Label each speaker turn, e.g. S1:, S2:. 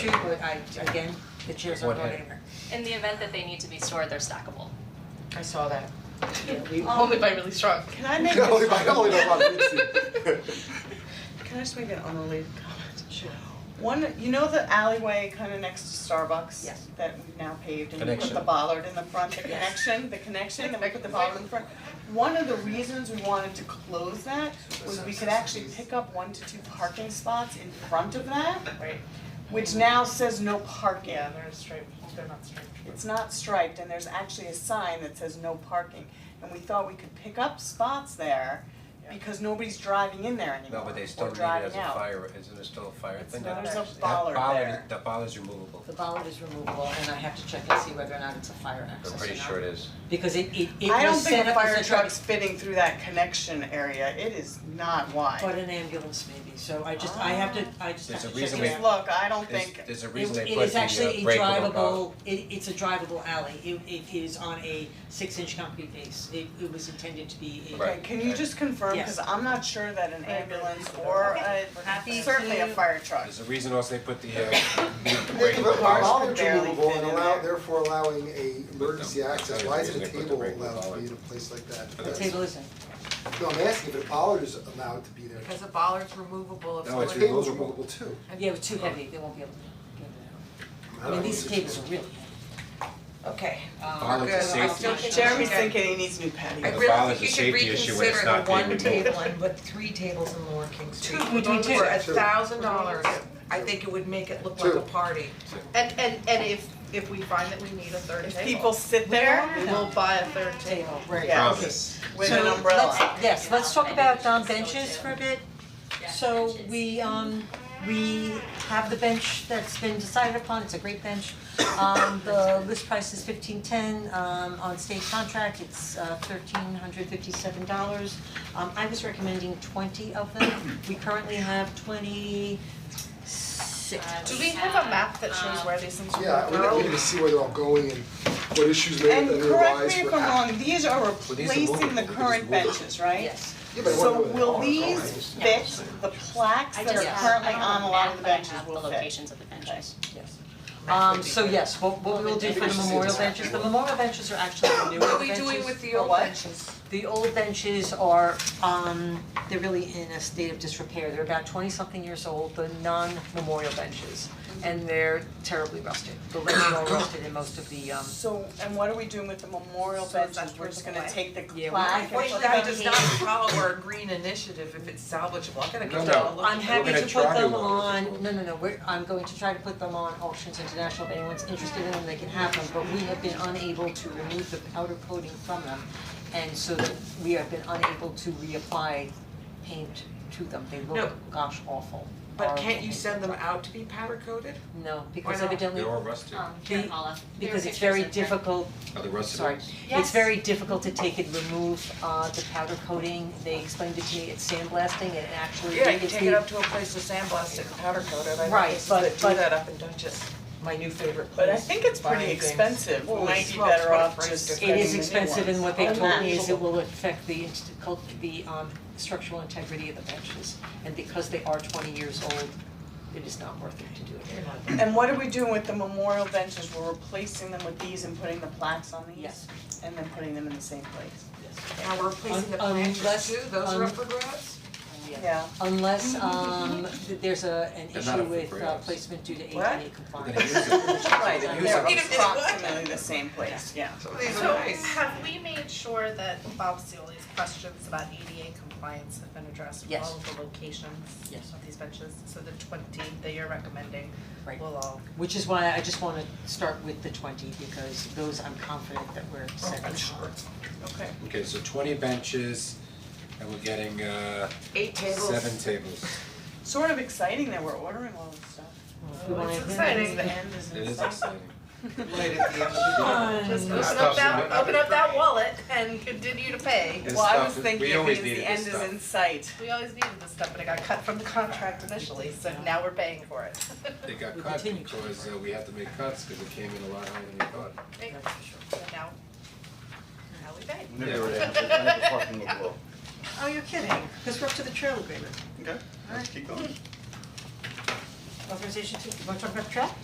S1: true, but I, again, the chairs are
S2: What
S1: going
S2: heading?
S1: anywhere.
S3: In the event that they need to be stored, they're stackable.
S1: I saw that. Um, Yeah, we-
S4: Only by really strong.
S5: Can I make
S2: Only
S5: this,
S2: by- only by Rob Ritchie.
S5: can I just make an unrelated comment?
S1: Sure.
S5: One, you know the alleyway kind of next to Starbucks?
S1: Yes.
S5: That we've now paved and we put
S2: Connection.
S5: the bollard in the front, the
S1: Yes.
S5: connection, the connection, and we put the bollard in front. One of the reasons we wanted to close that was we could actually pick up one to two parking spots in front of that,
S4: Right,
S5: which now says no parking.
S4: yeah, they're striped, they're not striped.
S5: It's not striped and there's actually a sign that says no parking. And we thought we could pick up spots there
S4: Yeah.
S5: because nobody's driving in there anymore
S2: No, but they
S5: or
S2: still need it
S5: driving
S2: as a
S5: out.
S2: fire, isn't it still a fire
S4: It's
S2: thing?
S4: not
S2: That-
S5: There's a
S4: That
S5: bollard there.
S2: That bollard, that bollard's removable,
S1: The bollard is removable and I have to check and see whether or not it's a fire access
S2: I'm
S1: or
S2: pretty
S1: not.
S2: sure it is.
S1: Because it it it
S5: I don't
S1: was
S5: think
S1: set
S5: a
S1: up as
S5: fire
S1: a truck,
S5: truck's fitting through that connection area, it is not
S1: but
S5: wide.
S1: an ambulance maybe, so I just, I have to, I just have
S2: There's
S1: to
S2: a
S1: check
S2: reason
S1: it
S2: we-
S1: out.
S5: Just look, I don't
S2: There's-
S5: think,
S2: There's a
S1: It
S2: reason they
S1: it
S2: put
S1: is
S2: the uh,
S1: actually a
S2: breakable bollard.
S1: drivable, it it's a drivable alley, it it is on a six inch concrete base, it it was intended to be a.
S2: Right.
S5: okay, can you just confirm,
S1: Yes.
S5: cause I'm not sure that an
S4: I agree.
S5: ambulance or
S3: Okay.
S5: a,
S3: Happy
S5: certainly a
S3: to-
S5: fire truck.
S2: There's a reason also they put the uh, the
S6: Make the
S2: breakable bollard.
S6: bollards
S5: Barely
S6: removable
S5: fit
S6: and
S5: in
S6: allow,
S5: there.
S6: therefore allowing a emergency
S2: But no,
S6: access,
S2: that's
S6: why isn't
S2: the reason
S6: a
S2: they put the
S6: table
S2: break
S6: allowed to
S2: bollard.
S6: be in a place like that?
S1: The table isn't,
S6: No, I'm asking if a bollard is allowed to be there.
S7: Because a bollard's removable if
S2: No,
S7: someone.
S2: it's
S6: The table's
S2: removable.
S6: removable too.
S1: yeah, it's too heavy, they won't be able to get it out. I mean, these tables are really heavy.
S7: Okay.
S2: Bollards are
S7: Good, I
S2: safety.
S7: still think.
S5: Jeremy's thinking he needs new patio.
S7: I
S2: The
S7: really
S2: bollard's
S7: think you
S2: a
S7: should
S2: safety issue when it's
S7: reconsider
S2: not
S7: the
S2: being
S7: one
S2: removed.
S7: table and put three tables in Lower King Street.
S1: Two, we do two.
S7: For a
S6: Two.
S7: thousand dollars, I think it would make it look like
S6: Two.
S7: a party.
S4: And, and, and if, if we find that we need a third
S5: If people
S4: table,
S5: sit
S4: we
S5: there
S4: will buy a third table.
S1: Table, right.
S5: Yeah.
S2: Promise.
S5: with
S1: So
S5: an umbrella.
S1: let's- yes, let's talk about um benches for a bit.
S3: Yeah,
S1: So
S3: benches.
S1: we um we have the bench that's been decided upon, it's a great bench. Um the list price is fifteen ten, um on state contract, it's uh thirteen hundred fifty seven dollars. Um I was recommending twenty of them, we currently have twenty six.
S5: Uh,
S4: Do we have a map that shows where these things
S6: Yeah,
S4: are?
S6: we need to see where they're all going and what issues may
S5: And
S6: may
S5: correct
S6: arise
S5: me if
S6: for
S5: I'm
S6: act-
S5: wrong,
S2: these
S5: these are
S2: are movable,
S5: replacing the
S2: we can just
S5: current
S2: move it.
S5: benches, right?
S1: Yes,
S6: Yeah, but I
S5: So
S6: wonder
S5: will
S6: where they're all going.
S5: these fit the plaques
S3: I
S5: that are
S3: just-
S5: currently
S3: I don't have
S5: on a lot of the benches
S3: map, but I
S5: will
S3: have the
S5: fit?
S3: locations of the benches.
S1: yes. Um so yes, what what we will do for the memorial benches, the memorial benches are actually the newer benches.
S7: What are we doing with the
S5: Or
S7: old
S5: what?
S7: benches?
S1: The old benches are, um, they're really in a state of disrepair, they're about twenty something years old, the non-memorial benches. And they're terribly rusted, the legs are all rusted and most of the um,
S5: So, and what are we doing with the memorial
S7: So is that
S5: benches, we're just gonna
S7: taken
S5: take the
S1: Yeah, we-
S5: plaque and put
S7: Unfortunately,
S5: that
S7: that
S5: in
S7: does
S5: the-
S7: not follow our green initiative if it's salvageable, I'm gonna
S2: No,
S7: go down and
S2: no.
S7: look.
S1: I'm happy
S2: gonna
S1: to put
S2: try
S1: them
S2: one.
S1: on, no, no, no, we're, I'm going to try to put them on auctions international, if anyone's interested in them, they can have them, but we have been unable to remove the powder coating from them. And so that we have been unable to reapply paint to them, they
S7: No.
S1: look gosh awful,
S7: But
S1: horrible.
S7: can't you send them out to be powder coated?
S1: No, because
S7: not?
S1: evidently
S2: They're all rusted.
S3: Um,
S1: Be-
S3: here, Paula, there are
S1: because it's
S3: pictures
S1: very
S3: of them.
S1: difficult,
S2: Are they rusted?
S1: sorry, it's
S3: Yes.
S1: very difficult to take and remove uh the powder coating, they explained it to me, it's sandblasting and actually
S7: Yeah, you can
S1: it's
S7: take it
S1: the-
S7: up to a place to sandblast it and powder coat it, I know
S1: Right,
S7: places
S1: but-
S7: that
S1: but-
S7: do that up in Dutchess, my new favorite place.
S5: But I think it's
S7: buying
S5: pretty
S7: things.
S5: expensive, we
S7: Holy
S5: might be
S7: smokes,
S5: better
S7: what a
S5: off
S7: price
S5: just
S7: difference.
S1: It
S5: getting
S1: is
S5: the new
S1: expensive and
S5: ones.
S1: what they
S5: And
S1: told me is it
S5: natural.
S1: will affect the inst- cult, the um structural integrity of the benches. And because they are twenty years old, it is not worth it to do it.
S5: And what are we doing with the memorial benches, we're replacing them with these and putting the plaques on these?
S1: Yes.
S5: And then putting them in the same place,
S7: Now we're replacing the
S1: Um, um,
S7: planters
S1: let's-
S7: too, those are
S1: um,
S7: up for grabs?
S5: yeah.
S1: Unless um th- there's a an
S2: They're
S1: issue
S2: not up for
S1: with uh
S2: grabs.
S1: placement due to
S5: What?
S1: ADA
S2: We're
S1: compliance.
S2: gonna use it.
S5: Right,
S2: Use
S5: they're
S2: them.
S5: approximately the same place, yeah.
S7: Some of these
S4: So
S7: are nice.
S4: have we made sure that Bob Seoli's questions about ADA compliance have been addressed with
S1: Yes.
S4: all of the locations
S1: Yes.
S4: of these benches? So the twenty that you're recommending
S1: Right.
S4: will all
S1: Which is why I just wanna start with the twenty because those I'm confident that we're set on.
S4: Okay.
S2: Okay, so twenty benches and we're getting uh
S7: Eight tables.
S2: seven tables.
S5: Sort of exciting that we're ordering all this stuff.
S1: We wanna-
S4: It's exciting.
S5: The end is
S2: It
S5: in
S2: is
S5: sight.
S2: exciting.
S7: Right at the end of the day.
S4: Just
S2: This
S4: open up
S2: stuff's
S4: that,
S2: not-
S4: open up that wallet and continue to pay.
S2: This
S5: Well, I
S2: stuff
S5: was
S2: is-
S5: thinking
S2: we
S5: it
S2: always
S5: means
S2: needed
S5: the
S2: this
S5: end is
S2: stuff.
S5: in sight.
S4: We always needed this stuff, but it got cut from the contract initially, so now we're paying for it.
S2: It got
S1: We
S2: cut
S1: continue.
S2: because uh, we had to make cuts because it came in a lot higher than we thought.
S4: So now, now we pay.
S2: Yeah.
S1: Oh, you're kidding, cause we're up to the trail agreement.
S8: Okay, let's keep going.
S1: authorization to, you want to talk about track?